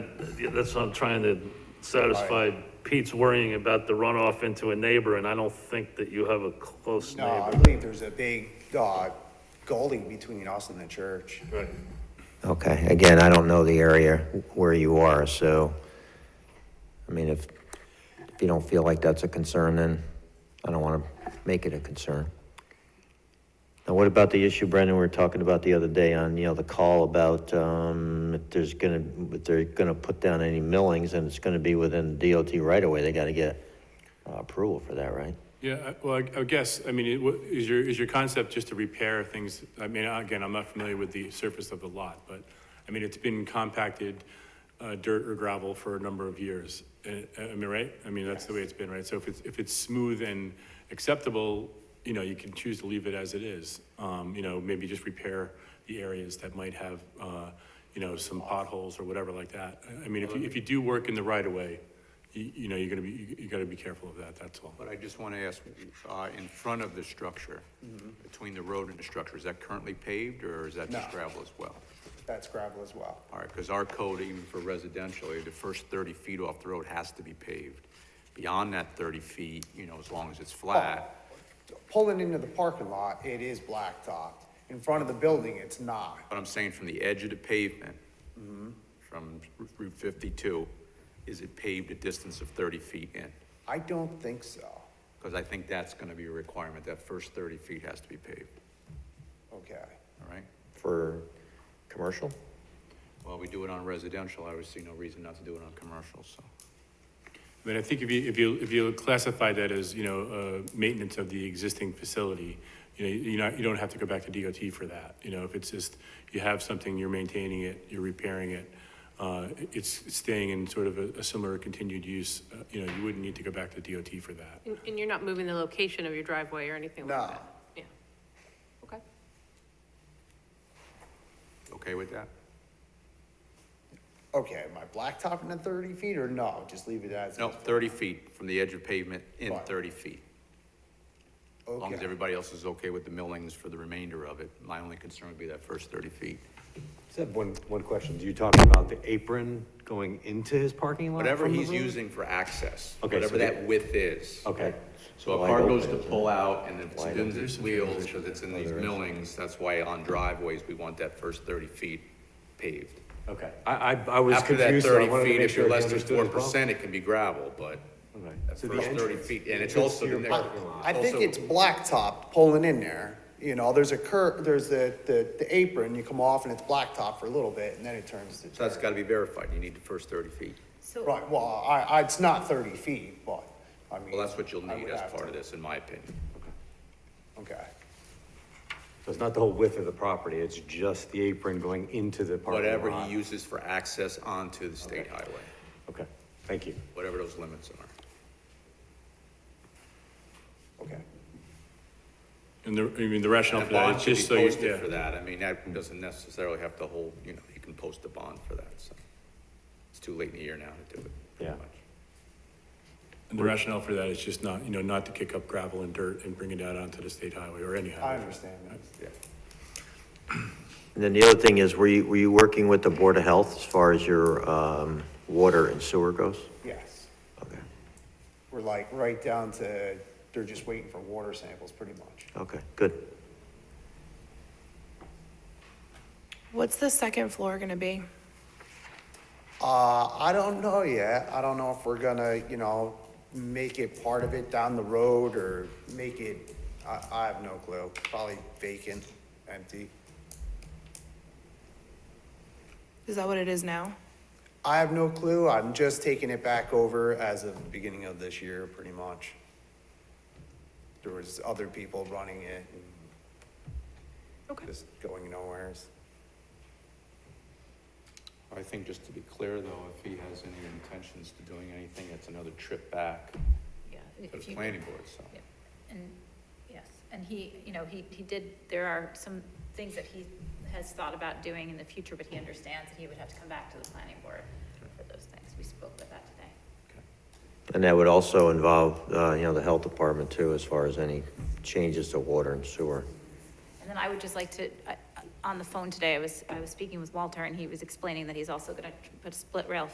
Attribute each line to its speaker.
Speaker 1: yeah, that's what I'm trying to satisfy Pete's worrying about the runoff into a neighbor, and I don't think that you have a close
Speaker 2: No, I
Speaker 1: neighbor.
Speaker 2: believe there's a big, uh, gully between us and the church.
Speaker 1: Right.
Speaker 3: Okay, again, I don't know the area where you are, so, I mean, if, if you don't feel like that's a concern, then I don't want to make it a concern. Now, what about the issue, Brendan, we were talking about the other day on, you know, the call about, um, if there's gonna, if they're gonna put down any millings and it's gonna be within DOT right away, they gotta get uh, approval for that, right?
Speaker 4: Yeah, I- well, I I guess, I mean, it wa- is your, is your concept just to repair things? I mean, again, I'm not familiar with the surface of the lot, but, I mean, it's been compacted uh, dirt or gravel for a number of years. Uh, I mean, right? I mean, that's the way it's been, right? So if it's, if it's smooth and acceptable, you know, you can choose to leave it as it is. Um, You know, maybe just repair the areas that might have, uh, you know, some potholes or whatever like that. I- I mean, if you, if you do work in the right-of-way, you, you know, you're gonna be, you- you gotta be careful of that, that's all.
Speaker 5: But I just want to ask, uh, in front of the structure, between the road and the structure, is that currently paved or is that just
Speaker 2: No.
Speaker 5: gravel as well?
Speaker 2: That's gravel as well.
Speaker 5: All right, because our code, even for residential, the first thirty feet off the road has to be paved. Beyond that thirty feet, you know, as long as it's flat,
Speaker 2: Oh. Pulling into the parking lot, it is blacktopped. In front of the building, it's not.
Speaker 5: but I'm saying from the edge of the pavement, from Route fifty-two, is it paved a distance of thirty feet in?
Speaker 2: I don't think so.
Speaker 5: Because I think that's going to be a requirement, that first thirty feet has to be paved,
Speaker 2: Okay.
Speaker 5: all right?
Speaker 3: For commercial?
Speaker 5: Well, we do it on residential, I would see no reason not to do it on commercial, so.
Speaker 4: I mean, I think if you, if you, if you classify that as, you know, uh, maintenance of the existing facility, you know, you're not, you don't have to go back to DOT for that. You know, if it's just, you have something, you're maintaining it, you're repairing it, uh, it's staying in sort of a, a similar continued use, uh, you know, you wouldn't need to go back to DOT for that.
Speaker 6: And- And you're not moving the location of your driveway or anything like
Speaker 2: No.
Speaker 6: that? Yeah. Okay.
Speaker 5: Okay with that?
Speaker 2: Okay, am I blacktopping the thirty feet or no? Just leave it as.
Speaker 5: No,
Speaker 2: is?
Speaker 5: thirty feet from the edge of pavement in
Speaker 2: Fine.
Speaker 5: thirty feet. As long as
Speaker 2: Okay.
Speaker 5: everybody else is okay with the millings for the remainder of it. My only concern would be that first thirty feet.
Speaker 7: Just have one, one question. Do you talk about the apron going into his parking lot?
Speaker 5: Whatever
Speaker 7: from the
Speaker 5: he's
Speaker 7: road?
Speaker 5: using for access,
Speaker 7: Okay, so
Speaker 5: whatever
Speaker 7: the-
Speaker 5: that width is.
Speaker 7: Okay.
Speaker 5: So a
Speaker 3: Wide
Speaker 5: car goes
Speaker 3: open,
Speaker 5: to
Speaker 3: isn't
Speaker 5: pull out and it's
Speaker 3: Wide
Speaker 5: spins its wheels because it's in these millings, that's why on driveways, we want that first thirty feet paved.
Speaker 7: Okay. I, I, I was
Speaker 5: After that
Speaker 7: confused, so I
Speaker 5: thirty
Speaker 7: wanted to
Speaker 5: feet,
Speaker 7: make
Speaker 5: if
Speaker 7: sure
Speaker 5: you're
Speaker 7: he
Speaker 5: less than
Speaker 7: understood
Speaker 5: four
Speaker 7: as well.
Speaker 5: percent, it can be gravel, but
Speaker 7: Okay.
Speaker 5: that
Speaker 7: So the
Speaker 5: first thirty
Speaker 7: entrance-
Speaker 5: feet, and it's
Speaker 7: entrance
Speaker 5: also
Speaker 7: to
Speaker 5: the
Speaker 7: your
Speaker 5: next.
Speaker 7: parking lot.
Speaker 2: I think
Speaker 5: also-
Speaker 2: it's blacktopped pulling in there. You know, there's a cur, there's the, the, the apron, you come off and it's blacktop for a little bit and then it turns to.
Speaker 5: So that's
Speaker 2: dirt.
Speaker 5: gotta be verified, you need the first thirty feet.
Speaker 2: Right, well, I, I, it's not thirty feet, but I mean.
Speaker 5: Well, that's what you'll
Speaker 2: I
Speaker 5: need
Speaker 2: would
Speaker 5: as
Speaker 2: have
Speaker 5: part
Speaker 2: to-
Speaker 5: of this, in my opinion.
Speaker 2: Okay.
Speaker 7: So it's not the whole width of the property, it's just the apron going into the parking lot?
Speaker 5: Whatever he uses for access onto the state highway,
Speaker 7: Okay, thank you.
Speaker 5: whatever those limits are.
Speaker 2: Okay.
Speaker 4: And the, I mean, the rationale
Speaker 5: And
Speaker 4: for
Speaker 5: a
Speaker 4: that
Speaker 5: bond
Speaker 4: is
Speaker 5: should be
Speaker 4: just so you,
Speaker 5: posted for
Speaker 4: yeah.
Speaker 5: that, I mean, that doesn't necessarily have to hold, you know, you can post a bond for that, so. It's too late in the year now to do it, pretty
Speaker 7: Yeah.
Speaker 5: much.
Speaker 4: And the rationale for that is just not, you know, not to kick up gravel and dirt and bring it out onto the state highway or any
Speaker 2: I
Speaker 4: highway.
Speaker 2: understand that.
Speaker 5: Yeah.
Speaker 3: And then the other thing is, were you, were you working with the Board of Health as far as your, um, water and sewer goes?
Speaker 2: Yes.
Speaker 3: Okay,
Speaker 2: We're like right down to, they're just waiting for water samples pretty much.
Speaker 3: okay, good.
Speaker 8: What's the second floor gonna be?
Speaker 2: Uh, I don't know yet. I don't know if we're gonna, you know, make it part of it down the road or make it, I, I have no clue. Probably vacant, empty.
Speaker 8: Is that what it is now?
Speaker 2: I have no clue. I'm just taking it back over as of the beginning of this year, pretty much. There was other people running it and
Speaker 8: Okay.
Speaker 2: just going nowheres.
Speaker 5: I think just to be clear, though, if he has any intentions to doing anything, it's another trip back
Speaker 9: Yeah,
Speaker 5: to
Speaker 9: if
Speaker 5: the
Speaker 9: you-
Speaker 5: planning board, so.
Speaker 9: yeah, And, yes, and he, you know, he, he did, there are some things that he has thought about doing in the future, but he understands that he would have to come back to the planning board for those things. We spoke about that today.
Speaker 3: And that would also involve, uh, you know, the health department too, as far as any changes to water and sewer.
Speaker 9: And then I would just like to, I- on the phone today, I was, I was speaking with Walter, and he was explaining that he's also gonna put a split rail